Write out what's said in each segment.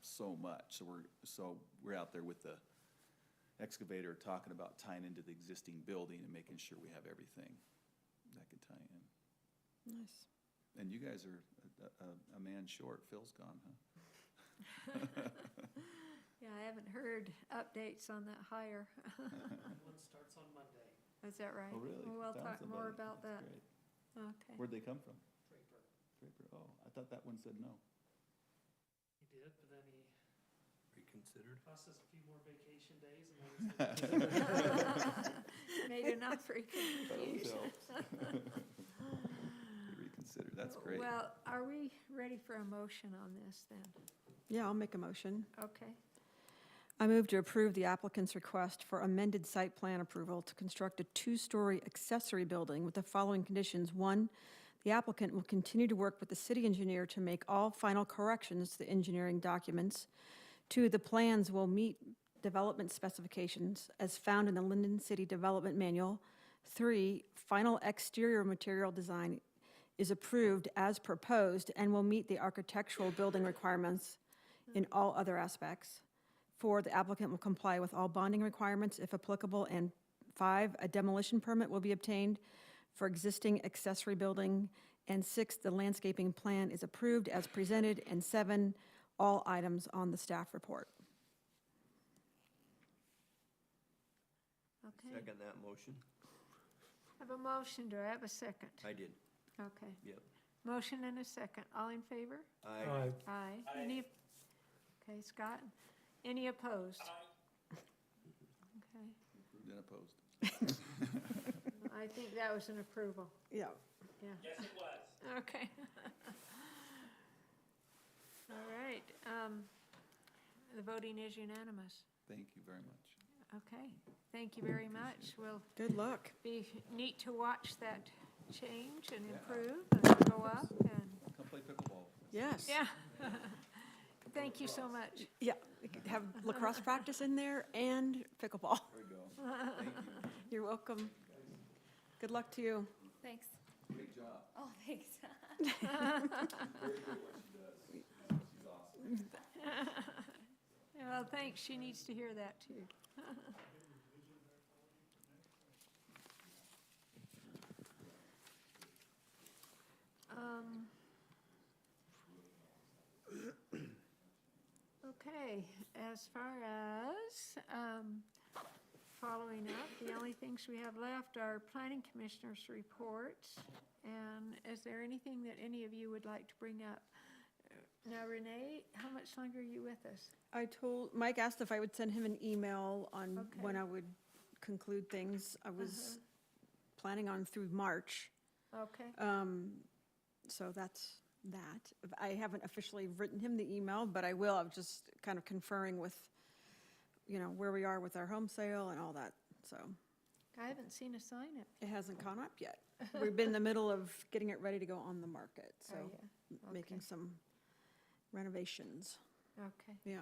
so much. So we're, so we're out there with the excavator talking about tying into the existing building and making sure we have everything that can tie in. Nice. And you guys are a, a, a man short. Phil's gone, huh? Yeah, I haven't heard updates on that hire. One starts on Monday, Is that right? Oh, really? Well, We'll Found talk more somebody. about That's that. great. Okay. Where'd they come from? Draper. Draper, oh, I thought that one said no. He did, but then he Reconsidered? cost us a few more vacation days and then he said, Made an offer, he couldn't That always refuse. helps. Reconsider, that's great. Well, are we ready for a motion on this then? Yeah, I'll make a motion. Okay, I move to approve the applicant's request for amended site plan approval to construct a two-story accessory building with the following conditions. One, the applicant will continue to work with the city engineer to make all final corrections to the engineering documents. Two, the plans will meet development specifications as found in the Linden City Development Manual. Three, final exterior material design is approved as proposed and will meet the architectural building requirements in all other aspects. Four, the applicant will comply with all bonding requirements if applicable. And five, a demolition permit will be obtained for existing accessory building. And six, the landscaping plan is approved as presented. And seven, all items on the staff report. okay. Second that motion? Have a motion, do I have a second? I did, Okay, yep. motion and a second, all in favor? Aye. Aye. Any? Okay, Scott, any opposed? Okay, Then opposed. I think that was an approval, Yeah. yeah. Yes, it was. Okay. All right, um, the voting is unanimous. Thank you very much. Okay, thank you very much. Will Good luck. be neat to watch that change and Yeah. improve and go up and, Come play pickleball. Yes. yeah. Thank you so much. Yeah, we could have lacrosse practice in there and pickleball. There we go. Thank you. You're welcome. Good luck to you. Thanks. Great job. Oh, thanks. Very good what she does. She's awesome. Well, thanks, she needs to hear that too. Um, Okay, as far as, um, following up, the only things we have left are planning commissioners' reports. And is there anything that any of you would like to bring up? Now Renee, how much longer are you with us? I told, Mike asked if I would send him an email on when Okay. Uh-huh. I would conclude things. I was planning on through March, Okay, um, so that's that. I haven't officially written him the email, but I will. I'm just kind of conferring with, you know, where we are with our home sale and all that, so. I haven't seen a sign up. It hasn't gone up yet. We've been in the middle of getting it ready to go on the market, so Oh, yeah, m- making okay. some renovations, Okay, yeah,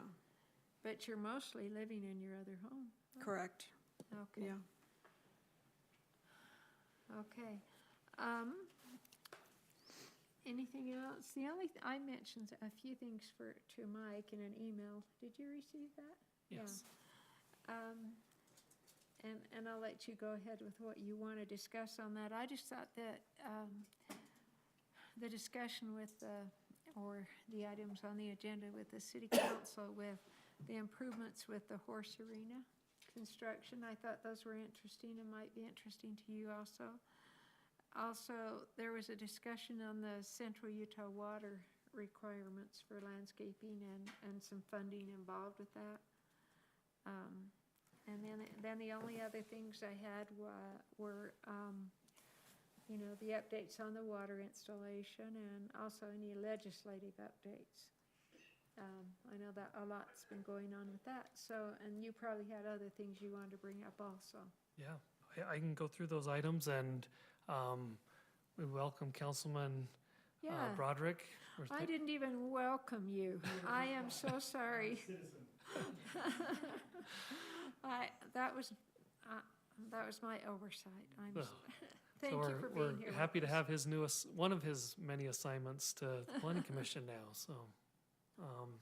but you're mostly living in your other home. correct, Okay, yeah. okay. Um, anything else? The only, th- I mentioned a few things for, to Mike in an email. Did you receive that? Yes. Um, and, and I'll let you go ahead with what you want to discuss on that. I just thought that, um, the discussion with, uh, or the items on the agenda with the city council with the improvements with the horse arena construction. I thought those were interesting and might be interesting to you also. Also, there was a discussion on the central Utah water requirements for landscaping and, and some funding involved with that. Um, and then, then the only other things I had wa- were, um, you know, the updates on the water installation and also any legislative updates. Um, I know that a lot's been going on with that, so, and you probably had other things you wanted to bring up also. Yeah, I, I can go through those items and, um, we welcome Councilman uh, Yeah, Broderick. We're I thi- didn't even welcome you. I am so sorry. I, that was, uh, that was my oversight. I'm, s- Well, thank So you we're- for being here. We're with happy to us. have his newest, one of his many assignments to the planning commission now, so. um,